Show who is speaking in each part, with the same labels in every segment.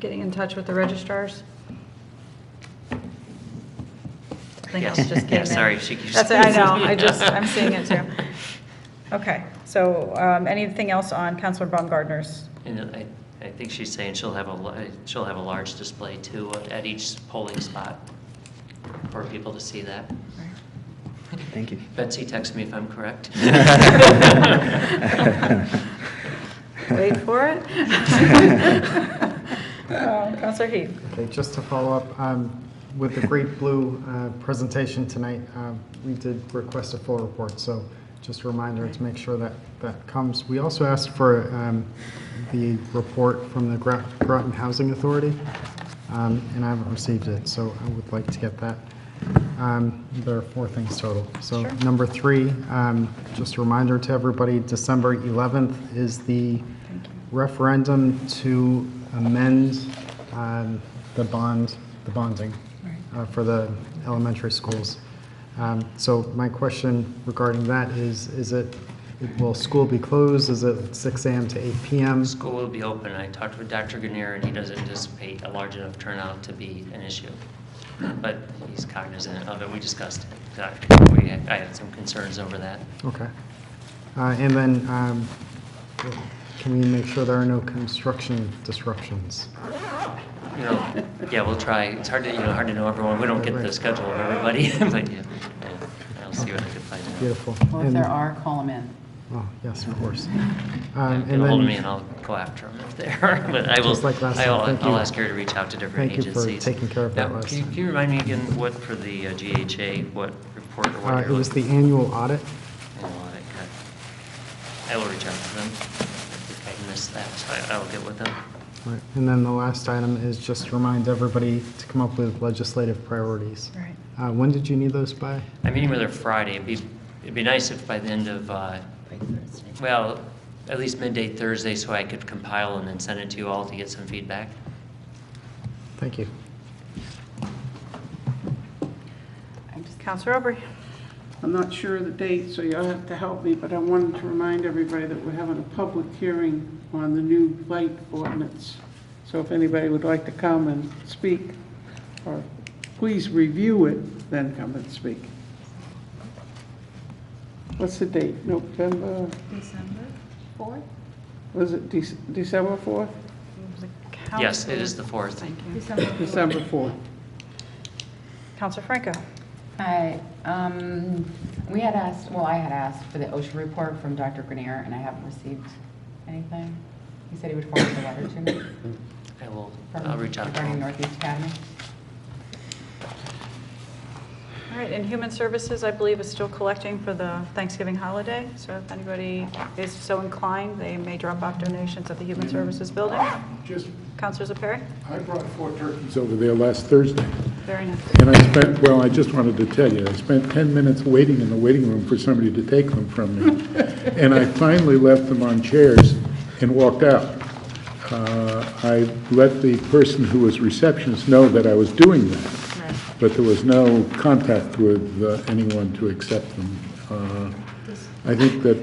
Speaker 1: getting in touch with the registrars? Something else just
Speaker 2: Yes.
Speaker 1: came
Speaker 2: Yeah,
Speaker 1: in.
Speaker 2: sorry, she keeps-
Speaker 1: That's, I know, I just, I'm seeing it too. Okay, so um, anything else on Counselor Baumgartner's?
Speaker 2: And I, I think she's saying she'll have a, li- she'll have a large display too at each polling spot for people to see that.
Speaker 3: Thank you.
Speaker 2: Betsy, text me if I'm correct.
Speaker 1: Wait for it. Um, Counselor Heath?
Speaker 4: Okay, just to follow up, um, with the Great Blue uh, presentation tonight, um, we did request a full report, so just a reminder to make sure that that comes. We also asked for um, the report from the Gra- Groton Housing Authority, um, and I haven't received it, so I would like to get that. Um, There are four things total. So
Speaker 1: Sure.
Speaker 4: number three, um, just a reminder to everybody, December 11th is the referendum to amend um, the bond, the bonding uh, for the elementary schools. Um, So my question regarding that is, is it, will school be closed? Is it 6 AM to 8 PM?
Speaker 2: School will be open. I talked with Dr. Ganir, and he doesn't anticipate a large enough turnout to be an issue. But he's cognizant of it. We discussed it. I- We, had- I had some concerns over that.
Speaker 4: Okay. Uh, And then, um, can we make sure there are no construction disruptions?
Speaker 2: You know, yeah, we'll try. It's hard to, you know, hard to know everyone. We don't get the schedule of everybody, but yeah, yeah, I'll see what I can find out.
Speaker 4: Beautiful.
Speaker 5: Well, if
Speaker 4: And-
Speaker 5: there are, call them in.
Speaker 4: Oh, yes, of course.
Speaker 2: Yeah,
Speaker 4: Um,
Speaker 2: Get ahold
Speaker 4: and
Speaker 2: of
Speaker 4: then-
Speaker 2: me and I'll go after them if they're, but I will,
Speaker 4: Just like last time,
Speaker 2: I'll,
Speaker 4: thank
Speaker 2: I'll
Speaker 4: you.
Speaker 2: ask her to reach out to different
Speaker 4: Thank you for
Speaker 2: agencies.
Speaker 4: taking care of that
Speaker 2: Now,
Speaker 4: last
Speaker 2: Can you-
Speaker 4: time.
Speaker 2: can you remind me again what for the uh, GHA, what report or
Speaker 4: Uh,
Speaker 2: what
Speaker 4: It
Speaker 2: you're
Speaker 4: was the
Speaker 2: looking?
Speaker 4: annual audit.
Speaker 2: Oh, I got- I will reach out to them. I think I missed that, so I- I'll get with them.
Speaker 4: Right. And then the last item is just to remind everybody to come up with legislative priorities.
Speaker 1: Right.
Speaker 4: Uh, When did you need those by?
Speaker 2: I'm meeting with her Friday. It'd be, it'd be nice if by the end of, uh, well, at least midday Thursday, so I could compile and then send it to you all to get some feedback.
Speaker 4: Thank you.
Speaker 1: Counselor Aubrey?
Speaker 6: I'm not sure of the date, so you'll have to help me, but I wanted to remind everybody that we're having a public hearing on the new light ordinance. So if anybody would like to come and speak, or please review it, then come and speak. What's the date? November,
Speaker 7: December 4th?
Speaker 6: was it Dec- December 4th?
Speaker 2: Yes, it is the fourth.
Speaker 1: Thank you.
Speaker 7: December 4th.
Speaker 6: December 4th.
Speaker 1: Counselor Franco?
Speaker 5: Hi, um, we had asked, well, I had asked for the OSHA report from Dr. Grenier, and I haven't received anything. He said he would forward the letter to me.
Speaker 2: I will,
Speaker 5: from-
Speaker 2: I'll reach out to
Speaker 5: Regarding
Speaker 2: them.
Speaker 5: Northeast Academy.
Speaker 1: All right, and Human Services, I believe, is still collecting for the Thanksgiving holiday, so if anybody is so inclined, they may drop off donations at the Human Services Building.
Speaker 8: Just,
Speaker 1: Counselors Perry?
Speaker 8: I brought four turkeys over there last Thursday,
Speaker 1: Very nice.
Speaker 8: and I spent, well, I just wanted to tell you, I spent 10 minutes waiting in the waiting room for somebody to take them from me, and I finally left them on chairs and walked out. Uh, I let the person who was receptionist know that I was doing that, but there was no contact with uh, anyone to accept them. Uh, I think that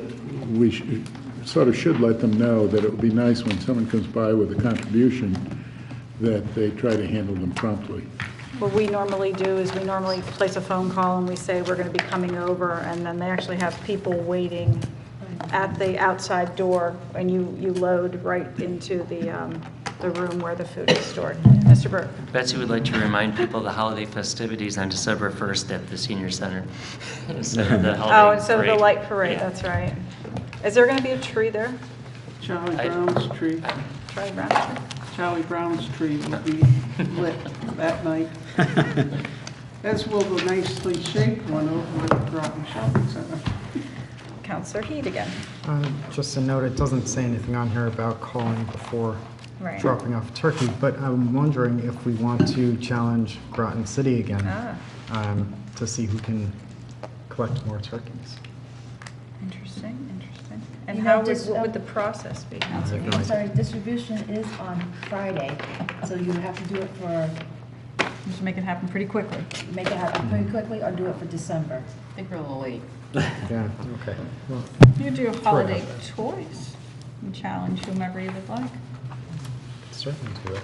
Speaker 8: we should- sort of should let them know that it would be nice when someone comes by with a contribution, that they try to handle them promptly.
Speaker 1: What we normally do is we normally place a phone call and we say, we're going to be coming over, and then they actually have people waiting at the outside door, and you, you load right into the, um, the room where the food is stored. Mr. Burke?
Speaker 2: Betsy would like to remind people the holiday festivities on December 1st at the senior center. instead of the
Speaker 1: Oh,
Speaker 2: holiday
Speaker 1: instead of the
Speaker 2: parade.
Speaker 1: light parade,
Speaker 2: Yeah.
Speaker 1: that's right. Is there going to be a tree there?
Speaker 6: Charlie
Speaker 2: I-
Speaker 6: Brown's tree,
Speaker 1: Charlie Brown?
Speaker 6: Charlie Brown's tree will be lit that night, as will the nicely shaped one over at Groton Shopping Center.
Speaker 1: Counselor Heed again.
Speaker 4: Uh, Just a note, it doesn't say anything on here about calling before
Speaker 1: Right.
Speaker 4: dropping off turkey, but I'm wondering if we want to challenge Groton City again
Speaker 1: Ah.
Speaker 4: um, to see who can collect more turkeys.
Speaker 1: Interesting, interesting. And
Speaker 7: You
Speaker 1: how
Speaker 7: know,
Speaker 1: would,
Speaker 7: just,
Speaker 1: what would
Speaker 7: um,
Speaker 1: the process be?
Speaker 4: I have no
Speaker 7: I'm
Speaker 4: idea.
Speaker 7: sorry, distribution is on Friday, so you have to do it for,
Speaker 1: Just make it happen pretty quickly.
Speaker 7: make it happen pretty quickly or do it for December.
Speaker 5: I think we're a little late.
Speaker 4: Yeah, okay. Well,
Speaker 1: You do a holiday choice and challenge whomever you would like.
Speaker 4: certainly do it.